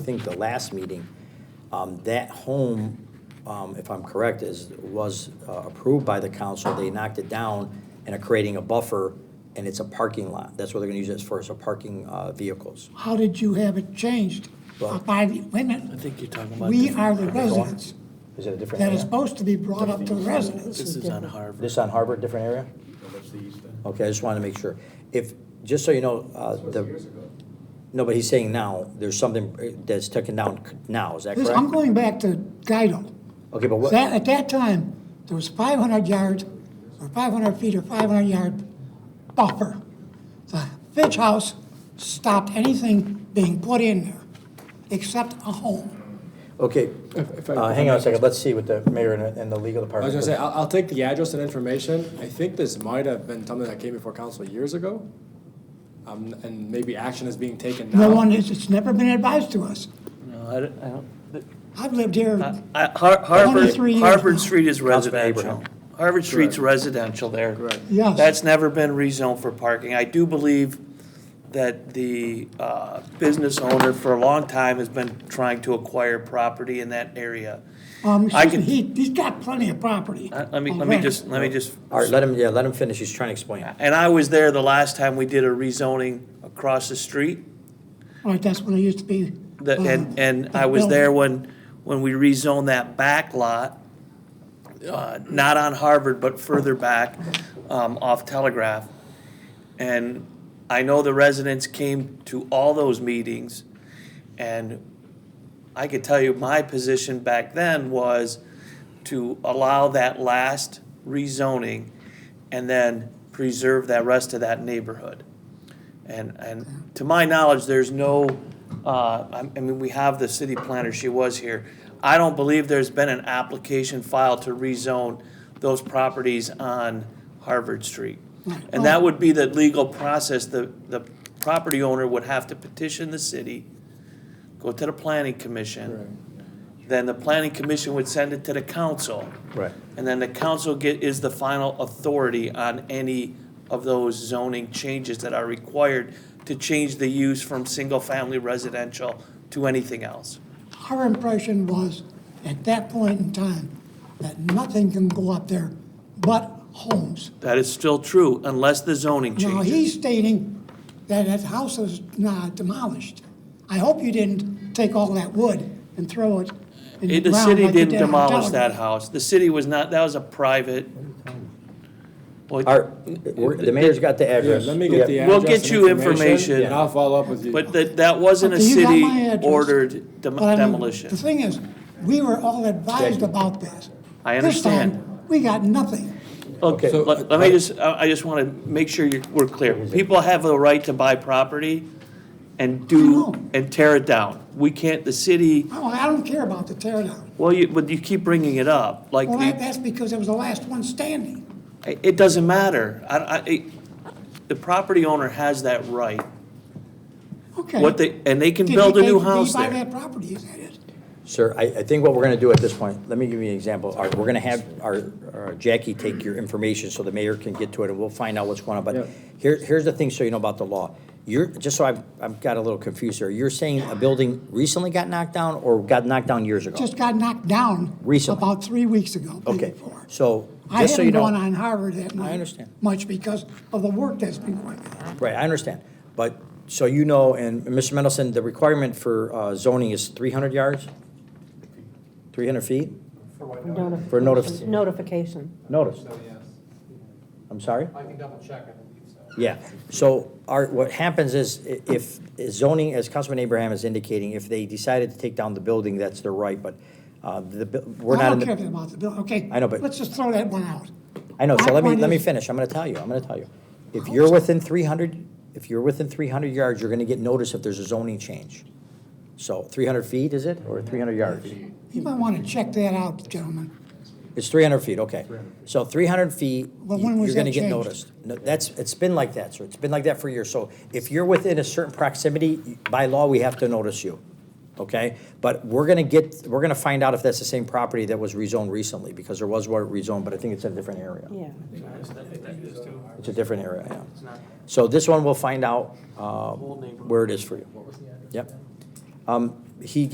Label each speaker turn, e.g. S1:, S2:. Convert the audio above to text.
S1: think the last meeting, um, that home, um, if I'm correct, is, was uh, approved by the council. They knocked it down and are creating a buffer, and it's a parking lot. That's what they're gonna use it for, is a parking, uh, vehicles.
S2: How did you have it changed
S1: Well-
S2: by, the- wait a
S3: I
S2: minute,
S3: think you're talking about.
S2: we
S3: different-
S2: are the residents.
S1: Is it a different
S2: That
S1: area?
S2: is supposed to be brought up to the residents.
S3: This is on Harvard.
S1: This on Harvard, different area? Okay, I just wanted to make sure. If, just so you know, uh, the, no, but he's saying now, there's something uh, that's taken down c- now, is that
S2: This, I'm
S1: correct?
S2: going back to Guido.
S1: Okay, but what?
S2: That, at that time, there was five hundred yards, or five hundred feet or five hundred yard buffer. The Fitch House stopped anything being put in there, except a home.
S1: Okay,
S4: if I-
S1: uh, hang on a second, let's see what the mayor and, and the legal
S4: I was
S1: department.
S4: gonna say, I'll, I'll take the address and information. I think this might have been something that came before council years ago. Um, and maybe action is being taken now.
S2: No one is, it's never been advised to us.
S5: No, I don't- I don't-
S2: I've lived here,
S5: I- Har- Harvard,
S2: 23 years now.
S5: Harvard Street is
S1: Councilman
S5: residential.
S1: Abraham.
S5: Harvard Street's
S4: Correct.
S5: residential there.
S4: Correct.
S2: Yes.
S5: That's never been rezoned for parking. I do believe that the uh, business owner for a long time has been trying to acquire property in that area.
S2: um,
S5: I
S2: excuse me,
S5: can-
S2: he, he's got plenty of property.
S5: Uh, Let me, let me
S2: already.
S5: just, let me just
S1: All right, let him, yeah, let him finish, he's trying to explain.
S5: And I was there the last time we did a rezoning across the street.
S2: Right, that's when it used to be.
S5: The,
S2: uh,
S5: and, and
S2: the
S5: I was
S2: building.
S5: there when, when we rezoned that back lot, uh, not on Harvard, but further back, um, off Telegraph. And I know the residents came to all those meetings, and I could tell you my position back then was to allow that last rezoning and then preserve that rest of that neighborhood. And, and to my knowledge, there's no, uh, I I mean, we have the city planner, she was here. I don't believe there's been an application filed to rezone those properties on Harvard Street. And that would be the legal process, the, the property owner would have to petition the city, go to the planning commission. Then the planning commission would send it to the council.
S1: Right.
S5: And then the council get, is the final authority on any of those zoning changes that are required to change the use from single-family residential to anything else.
S2: Our impression was, at that point in time, that nothing can go up there but homes.
S5: That is still true unless the zoning
S2: Now,
S5: changes.
S2: he's stating that that house is not demolished. I hope you didn't take all that wood and throw it in the
S5: It- The
S2: ground
S5: city
S2: like you
S5: didn't
S2: did on
S5: demolish
S2: Delaware.
S5: that house. The city was not, that was a private. Well,
S1: All right, we're- the mayor's got the
S4: Yeah,
S1: address.
S4: let me get the
S1: Yeah.
S4: address.
S5: We'll get
S4: and
S5: you information.
S4: And I'll follow up with you.
S5: But that, that wasn't a
S2: Okay, you got my
S5: city
S2: address.
S5: ordered dem-
S2: But I mean,
S5: demolition.
S2: The thing is, we were all advised about this.
S5: I
S2: This time,
S5: understand.
S2: We got nothing.
S5: Okay,
S1: So-
S5: let let me just, I I just want to make sure you we're clear. People have the right to buy property and
S2: I
S5: do,
S2: know.
S5: and tear it down. We can't, the city,
S2: I don't- I don't care about the tear down.
S5: well, you, but you keep bringing it up, like,
S2: Well, that-
S5: the-
S2: that's because it was the last one standing.
S5: it it doesn't matter. I, I, it- the property owner has that right.
S2: Okay.
S5: What they, and they can
S2: Did
S5: build a
S2: he
S5: new
S2: take-
S5: house
S2: Did he buy
S5: there.
S2: that property, is that it?
S1: Oh. Sir, I, I think what we're gonna do at this point, let me give you an example. All right, we're gonna have our, our Jackie take your information so the mayor can get to it, and we'll find out what's going on.
S4: Yeah.
S1: But here, here's the thing, so you know about the law. You're, just so I've, I've got a little confused here, you're saying a building recently got knocked down or got knocked down years ago?
S2: Just got knocked down.
S1: Recently.
S2: About three weeks ago, maybe
S1: Okay,
S2: four.
S1: so,
S2: I
S1: just so you
S2: haven't
S1: know.
S2: gone on Harvard that night.
S1: understand.
S2: Much because of the work that's been going on.
S1: Right, I understand. But, so you know, and Mr. Mendelson, the requirement for uh, zoning is 300 yards? 300 feet?
S6: Notif-
S1: For notice-
S6: Notification.
S1: Notice. I'm sorry?
S7: I can double check, I believe so.
S1: Yeah. So our, what happens is i- if zoning, as Councilman Abraham is indicating, if they decided to take down the building, that's their right, but uh, the, bu- we're
S2: I
S1: not in
S2: don't
S1: the.
S2: care about the bill, okay?
S1: I know, but-
S2: Let's just throw that one out.
S1: I know, so
S2: My
S1: let me,
S2: point
S1: let me
S2: is-
S1: finish, I'm gonna tell you, I'm gonna tell you. If you're within three hundred, if you're within three hundred yards, you're gonna get notice if there's a zoning change. So three hundred feet, is it, or three hundred yards?
S2: You might want to check that out, gentlemen.
S1: It's three hundred feet, okay. So three hundred feet,
S2: Well, when
S1: you-
S2: was
S1: you're gonna
S2: that
S1: get
S2: changed?
S1: noticed. No, That's, it's been like that, sir, it's been like that for years. So if you're within a certain proximity, y- by law, we have to notice you, okay? But we're gonna get, we're gonna find out if that's the same property that was rezoned recently, because there was one rezoned, but I think it's in a different area.
S6: Yeah.
S1: It's a different area, yeah. So this one, we'll find out uh, where it is for you. Yep. Um, he